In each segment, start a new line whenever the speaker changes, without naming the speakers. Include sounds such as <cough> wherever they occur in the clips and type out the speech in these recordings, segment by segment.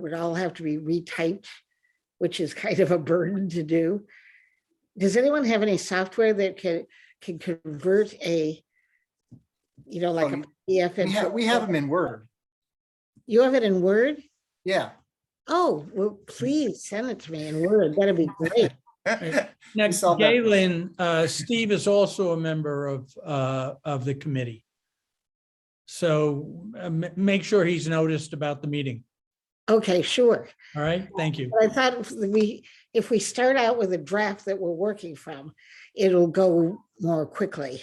would all have to be retyped, which is <laughs> kind of a burden to do. Does anyone have any software that can, can convert a, you know, like a
Um,
PDF?
We
into-
have, we have them in Word.
You have it in Word?
Yeah.
Oh, well, please send it to me in Word. That'd be great.
Next,
saw that.
Galen, uh, Steve is also a member of, uh, of the committee. So uh, ma- make sure he's noticed about the meeting.
Okay, sure.
All right, thank you.
But I thought if we, if we start out with a draft that we're working from, it'll go more quickly.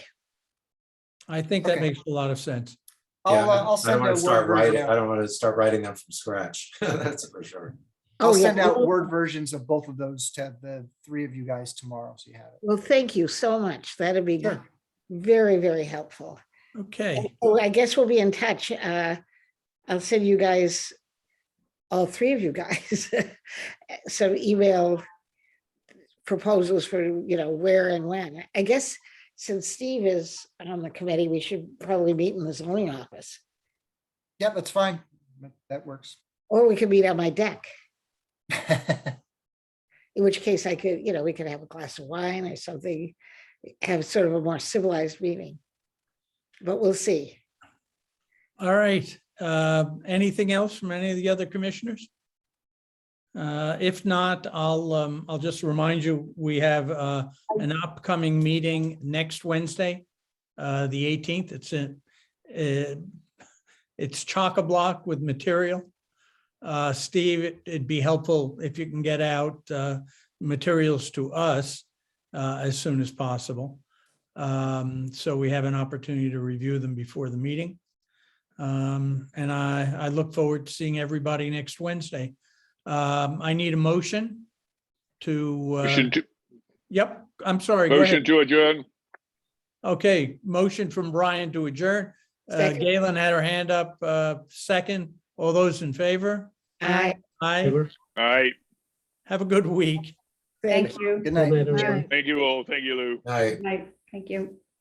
I think that
Okay.
makes a lot of sense.
I'll,
Yeah,
uh,
I- I
I'll
don't
send
wanna
a Word
start
version
writing- I
out.
don't want to start writing them from scratch. <laughs> That's for sure.
Oh
I'll
yeah.
send out Word versions of both of those to the three of you guys tomorrow, so you have it.
Well, thank you so much. That'd be
Sure.
very, very helpful.
Okay,
Well, I guess we'll be in touch. Uh, I'll send you guys, all three of you guys, <laughs> some email proposals for, you know, where and when. I guess since Steve is on the committee, we should probably meet in the zoning office.
Yeah, that's fine. That- That works. <laughs>
Or we could meet on my deck,
Yeah,
in which case I could, you know, we could have a glass of wine or something, have sort of a more civilized meeting. But we'll see.
all right. Uh, Anything else from any of the other commissioners? Uh, If not, I'll, um, I'll just remind you, we have uh, an upcoming meeting next Wednesday, uh, the 18th. It's in, uh, it's chock-a-block with material. Uh, Steve, it- it'd be helpful if you can get out uh, materials to us uh, as soon as possible. Um, So we have an opportunity to review them before the meeting. Um, And I, I look forward to seeing everybody next Wednesday. Um, I need a motion to. uh,
Motion to,
Yep, I'm sorry. go
motion
ahead.
to adjourn.
Okay, motion from Brian to adjourn. Uh,
Second.
Galen had her hand up, uh, second. All those in favor?
I
Aye.
All right.
Have a good week.
thank you.
Good night.
Thank you all. Thank you, Lou.
All right.
Right, thank you.